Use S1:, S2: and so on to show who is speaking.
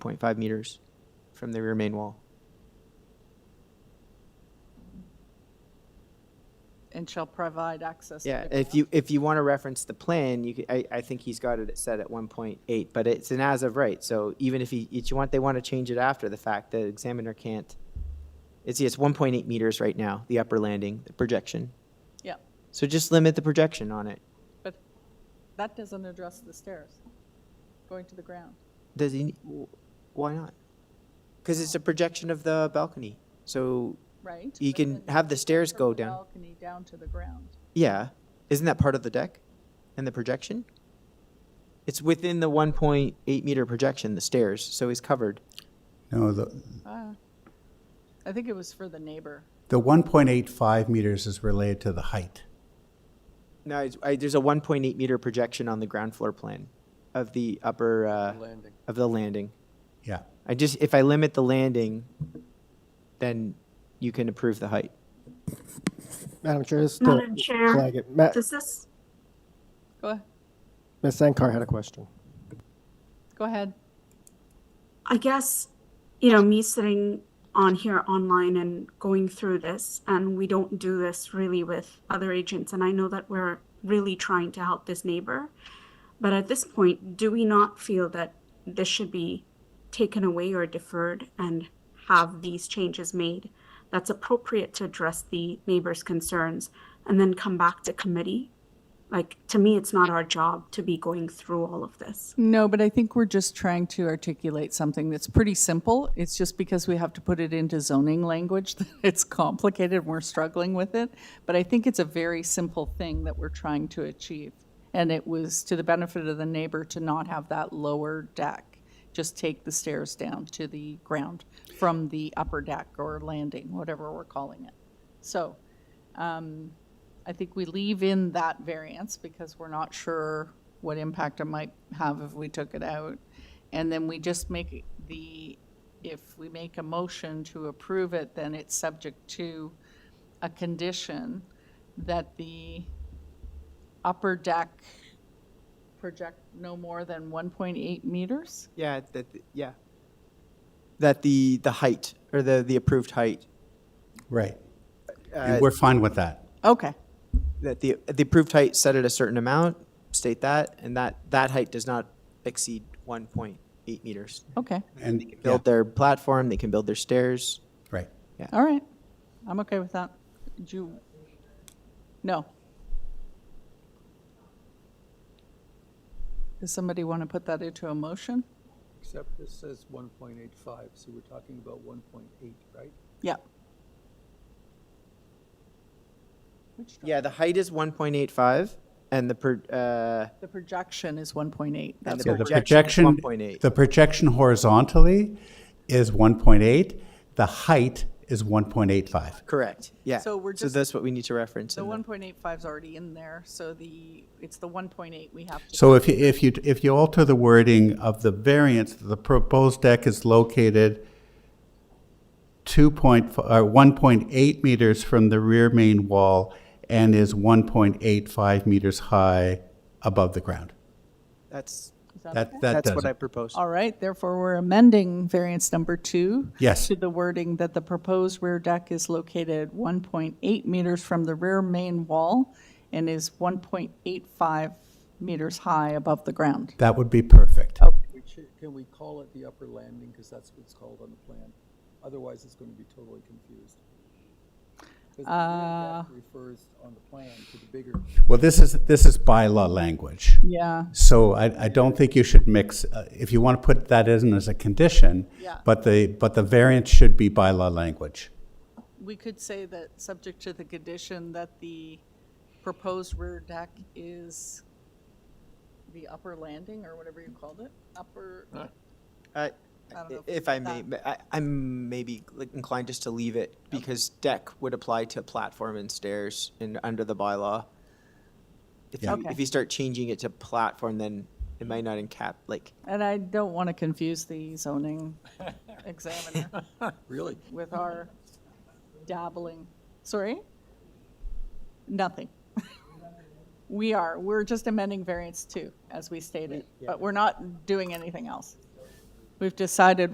S1: 0.5 meters from the rear main wall.
S2: and shall provide access. to
S1: Yeah,
S2: the
S1: if
S2: ground.
S1: you, if you want to reference the plan, you, could- I, I think he's got it set at 1.8, but it's an as of right. So even if he, if you want, they want to change it after the fact, the examiner can't. It's, it's 1.8 meters right now, the upper landing, the projection.
S2: Yeah,
S1: So just limit the projection on it.
S2: but that doesn't address the stairs going to the ground.
S1: Does he, why not? Because it's a projection of the balcony. So,
S2: Right?
S1: You
S2: but
S1: can
S2: then
S1: have the stairs
S2: from
S1: go
S2: the
S1: down.
S2: Balcony down to the ground.
S1: yeah, isn't that part of the deck and the projection? It's within the 1.8 meter projection, the stairs, so he's covered.
S3: No, the,
S1: Mm.
S2: Ah, I think it was for the neighbor.
S3: the 1.85 meters is related to the height.
S1: No, it's- I, there's a 1.8 meter projection on the ground floor plan of the upper, uh,
S4: landing.
S1: of the landing.
S3: Yeah.
S1: I just, if I limit the landing, then you can approve the height.
S5: Madam Chair, just
S6: Madam
S5: to
S6: Chair.
S5: flag it. Ma-
S6: Does this,
S2: Go, a-
S5: Ms. Sankar had a question.
S2: go ahead.
S6: I guess, you know, me sitting on here online and going through this, and we don't do this really with other agents, and I know that we're really trying to help this neighbor. But at this point, do we not feel that this should be taken away or deferred and have these changes made that's appropriate to address the neighbor's concerns and then come back to committee? Like, to me, it's not our job to be going through all of this.
S2: No, but I think we're just trying to articulate something that's pretty simple. It's just because we have to put it into zoning language that it's complicated and we're struggling with it. But I think it's a very simple thing that we're trying to achieve. And it was to the benefit of the neighbor to not have that lower deck. Just take the stairs down to the ground from the upper deck or landing, whatever we're calling it. So I think we leave in that variance because we're not sure what impact it might have if we took it out. And then we just make the, if we make a motion to approve it, then it's subject to a condition that the upper deck project no more than 1.8 meters?
S1: Yeah, that, yeah. That the, the height, or the, the approved height,
S3: Right.
S1: uh,
S3: And we're fine with that.
S2: Okay,
S1: that the, the approved height set at a certain amount, state that, and that, that height does not exceed 1.8 meters.
S2: okay,
S3: And, yeah,
S1: Build their platform, they can build their stairs.
S3: right.
S2: all right. I'm okay with that. Do you? No. Does somebody want to put that into a motion?
S4: Except this says one point eight five, so we're talking about one point eight, right?
S2: Yeah.
S1: Yeah, the height is 1.85, and the, per- uh,
S2: The projection is 1.8.
S1: And
S2: That's
S1: the
S2: what
S3: The
S2: we're-
S1: Projection is
S3: projection,
S1: 1.8.
S3: the projection horizontally is 1.8. The height is 1.85.
S1: correct, yeah.
S2: So we're
S1: So
S2: just-
S1: that's what we need to reference.
S2: the
S1: in the-
S2: 1.85 is already in there, so the, it's the 1.8 we have to.
S3: So if you, if you, if you alter the wording of the variance, the proposed deck is located two point, or one point eight meters from the rear main wall and is one point eight five meters high above the ground.
S1: That's,
S2: Is that okay?
S3: That, that
S1: that's
S3: does
S1: what I
S3: it.
S1: proposed.
S2: All right, therefore, we're amending variance number two.
S3: Yes.
S2: To the wording that the proposed rear deck is located 1.8 meters from the rear main wall and is 1.85 meters high above the ground.
S3: That would be perfect.
S4: We should, can we call it the upper landing, because that's what it's called on the plan? Otherwise, it's gonna be totally confused. 'Cause the rear deck Refers on the plan to the bigger,
S3: Well, this is, this is bylaw language.
S2: Yeah.
S3: So I, I don't think you should mix, uh, if you want to put that in as a condition,
S2: Yeah.
S3: but the, but the variance should be bylaw language.
S2: We could say that, subject to the condition that the proposed rear deck is the upper landing, or whatever you called it, upper,
S1: Uh,
S2: I don't know
S1: If I may,
S2: that-
S1: but I, I'm maybe like, inclined just to leave it, because deck would apply to platform and stairs and under the bylaw. If
S2: Yeah.
S1: you,
S2: Okay.
S1: if you start changing it to platform, then it might not encap, like,
S2: and I don't want to confuse the zoning examiner.
S4: really?
S2: with our dabbling. Sorry? Nothing. We are, we're just amending variance two, as we stated, but we're not doing anything else. We've decided